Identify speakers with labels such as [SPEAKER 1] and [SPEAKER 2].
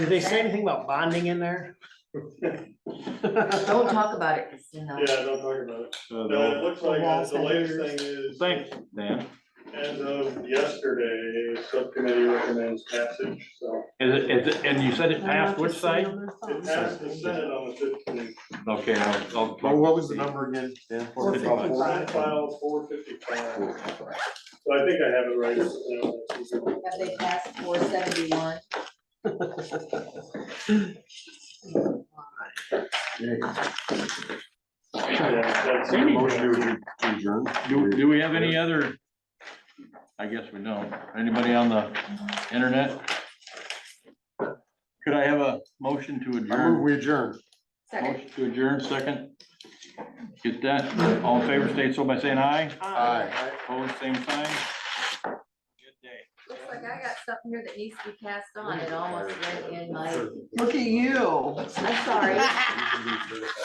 [SPEAKER 1] Did they say anything about bonding in there?
[SPEAKER 2] Don't talk about it, it's in the,
[SPEAKER 3] Yeah, don't talk about it.
[SPEAKER 4] So
[SPEAKER 3] No,
[SPEAKER 4] the
[SPEAKER 3] it looks like uh, the latest
[SPEAKER 2] Wall
[SPEAKER 3] thing is.
[SPEAKER 4] Thanks, Dan.
[SPEAKER 3] As of yesterday, the subcommittee recommends passage, so
[SPEAKER 4] Is it, is it, and you said it passed which side?
[SPEAKER 3] it passed the Senate on the fifteenth.
[SPEAKER 4] Okay, I'll, I'll.
[SPEAKER 5] Well, what was the number again? Dan?
[SPEAKER 2] Four fifty-five.
[SPEAKER 3] Senate file four fifty-five, so I think I have it right. uh,
[SPEAKER 2] have they passed four seventy-one?
[SPEAKER 3] yeah, that's-
[SPEAKER 5] Motion to adjourn.
[SPEAKER 4] Do, do we have any other? I guess we don't. Anybody on the internet? Could I have a motion to
[SPEAKER 5] I move
[SPEAKER 4] adjourn?
[SPEAKER 5] we adjourn.
[SPEAKER 2] Second.
[SPEAKER 4] Motion to adjourn, second. Get that, all in favor, state so by saying aye,
[SPEAKER 5] Aye.
[SPEAKER 4] opposed, same sign. Good day.
[SPEAKER 2] Looks like I got something here that needs to be passed on, it almost went in my,
[SPEAKER 1] Look at you.
[SPEAKER 2] I'm sorry.